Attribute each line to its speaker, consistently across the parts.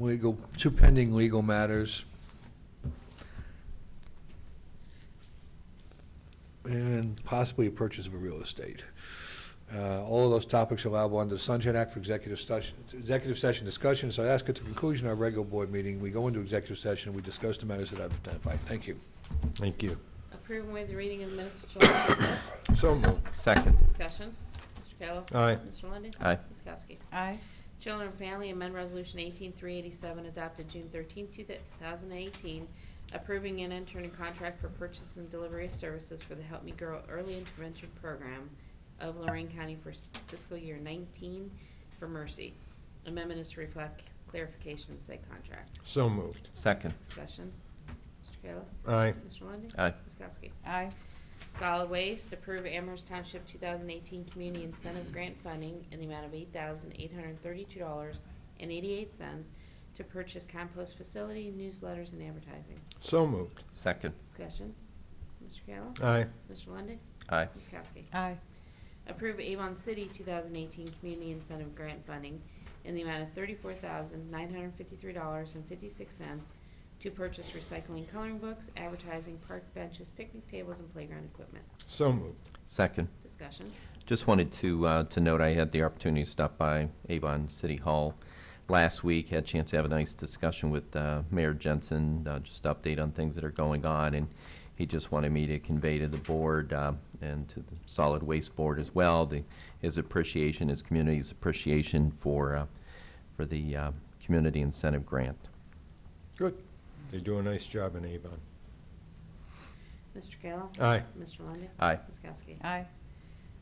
Speaker 1: legal, two pending legal matters. And possibly a purchase of a real estate. Uh, All of those topics are allowable under the Sunshine Act for executive session, executive session discussion. So I ask at the conclusion of our regular board meeting, we go into executive session, we discuss the matters that I've identified. Thank you.
Speaker 2: Thank you.
Speaker 3: Approve and waive the reading of the minutes of July 25th.
Speaker 2: So moved. Second.
Speaker 3: Discussion. Mr. Kayla.
Speaker 2: Aye.
Speaker 3: Mr. Lundy.
Speaker 2: Aye.
Speaker 3: Ms. Kowski.
Speaker 4: aye,
Speaker 3: Children and Family Amendment Resolution 18387 adopted June 13, 2018, approving an entering contract for purchase and delivery of services for the Help Me Grow Early Intervention Program of Lorraine County for s- fiscal year 19 for Mercy. Amendment is to reflect clarification in said contract.
Speaker 2: So moved. Second.
Speaker 3: Discussion. Mr. Kayla.
Speaker 2: Aye.
Speaker 3: Mr. Lundy.
Speaker 2: Aye.
Speaker 3: Ms. Kowski.
Speaker 4: aye,
Speaker 3: Solid Waste, approve Amherst Township 2018 Community Incentive Grant Funding in the amount of $8,832.88 to purchase compost facility, newsletters, and advertising.
Speaker 2: So moved. Second.
Speaker 3: Discussion. Mr. Kayla?
Speaker 2: Aye.
Speaker 3: Mr. Lundy,
Speaker 2: Aye.
Speaker 3: Ms. Kowski?
Speaker 4: aye,
Speaker 3: Approve Avon City 2018 Community Incentive Grant Funding in the amount of $34,953.56 to purchase recycling coloring books, advertising, park benches, picnic tables, and playground equipment.
Speaker 2: So moved.
Speaker 5: Second.
Speaker 3: Discussion.
Speaker 5: Just wanted to, uh, to note, I had the opportunity to stop by Avon City Hall last week, had a chance to have a nice discussion with uh, Mayor Jensen, uh, just update on things that are going on, and he just wanted me to convey to the board uh, and to the Solid Waste Board as well, the- his appreciation, his community's appreciation for, uh, for the uh, community incentive grant.
Speaker 2: Good. They do a nice job in Avon.
Speaker 3: Mr. Kayla?
Speaker 2: Aye.
Speaker 3: Mr. Lundey?
Speaker 5: Aye.
Speaker 3: Ms. Kowski?
Speaker 4: aye,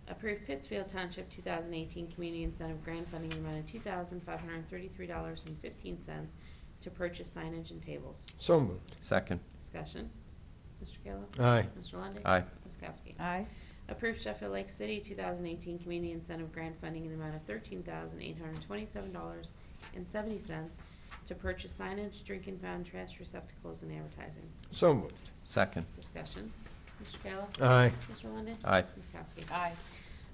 Speaker 3: Approve Pittsfield Township 2018 Community Incentive Grant Funding in the amount of $2,533.15 to purchase signage and tables.
Speaker 2: So moved.
Speaker 5: Second.
Speaker 3: Discussion. Mr. Kayla?
Speaker 2: Aye.
Speaker 3: Mr. Lundey?
Speaker 5: Aye.
Speaker 3: Ms. Kowski?
Speaker 4: aye,
Speaker 3: Approve Sheffield Lake City 2018 Community Incentive Grant Funding in the amount of $13,827.70 to purchase signage, drink and fountain, trash receptacles, and advertising.
Speaker 2: So moved.
Speaker 5: Second.
Speaker 3: Discussion. Mr. Kayla?
Speaker 2: Aye.
Speaker 3: Mr. Lundey?
Speaker 5: Aye.
Speaker 3: Ms. Kowski?
Speaker 4: aye,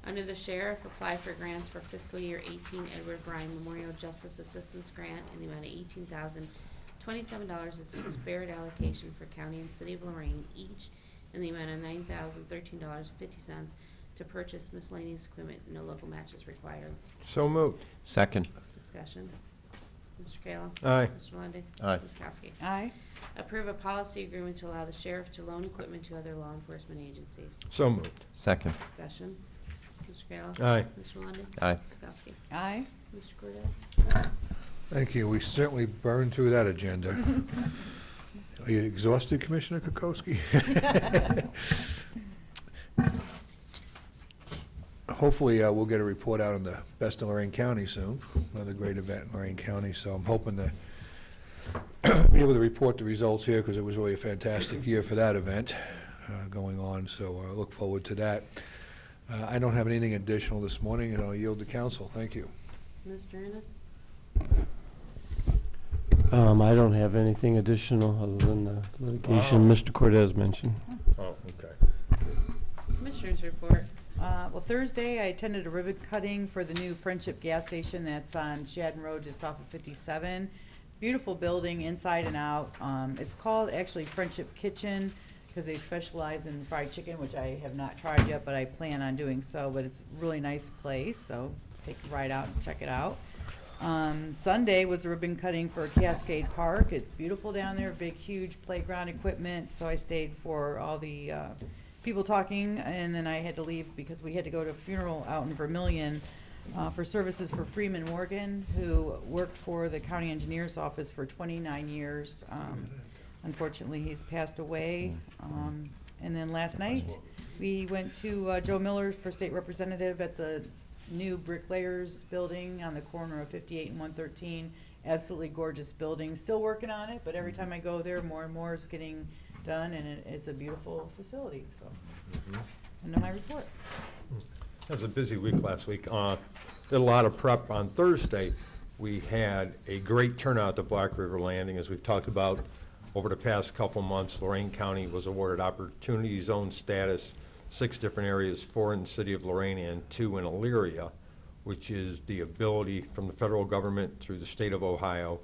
Speaker 3: Under the Sheriff, apply for grants for fiscal year 18 Edward Bryan Memorial Justice Assistance Grant in the amount of $18,027. It's a spared allocation for county and city of Lorraine each in the amount of $9,013.50 to purchase miscellaneous equipment. No local match is required.
Speaker 2: So moved.
Speaker 5: Second.
Speaker 3: Discussion. Mr. Kayla.
Speaker 2: Aye.
Speaker 3: Mr. Lundey.
Speaker 5: Aye.
Speaker 3: Ms. Kowski.
Speaker 4: aye,
Speaker 3: Approve a policy agreement to allow the sheriff to loan equipment to other law enforcement agencies.
Speaker 2: So moved.
Speaker 5: Second.
Speaker 3: Discussion. Mr. Kayla.
Speaker 2: Aye.
Speaker 3: Mr. Lundey.
Speaker 5: Aye.
Speaker 3: Ms. Kowski.
Speaker 4: aye.
Speaker 3: Mr. Cordez?
Speaker 1: Thank you. We certainly burned through that agenda. Are you exhausted, Commissioner Kokoski? Hopefully, uh, we'll get a report out on the Best of Lorraine County soon, another great event in Lorraine County, so I'm hoping to be able to report the results here, because it was really a fantastic year for that event uh, going on, so I look forward to that. Uh, I don't have anything additional this morning, and I'll yield to council. Thank you.
Speaker 3: Mr. Ennis?
Speaker 6: Um, I don't have anything additional other than the litigation
Speaker 2: Wow.
Speaker 6: Mr. Cortez mentioned.
Speaker 2: Oh, okay.
Speaker 3: Commissioners report.
Speaker 4: Uh, Well, Thursday, I attended a ribbon cutting for the new Friendship gas station that's on Shadden Road, just off of 57. Beautiful building inside and out. Um, It's called actually Friendship Kitchen because they specialize in fried chicken, which I have not tried yet, but I plan on doing so. But it's a really nice place, so take a ride out and check it out. Um, Sunday was a ribbon cutting for Cascade Park. It's beautiful down there, big, huge playground equipment. So I stayed for all the uh, people talking, and then I had to leave because we had to go to a funeral out in Vermillion uh, for services for Freeman Morgan, who worked for the county engineer's office for 29 years. Um, unfortunately, he's passed away. Um, and then last night, we went to uh, Joe Miller for state representative at the new bricklayers building on the corner of 58 and 113. Absolutely gorgeous building. Still working on it, but every time I go there, more and more is getting done, and it, it's a beautiful facility. So, end of my report.
Speaker 2: That was a busy week last week. Uh, Did a lot of prep on Thursday. We had a great turnout to Black River Landing, as we've talked about over the past couple months. Lorraine County was awarded Opportunity Zone status, six different areas, four in the city of Lorraine and two in Elyria, which is the ability from the federal government through the state of Ohio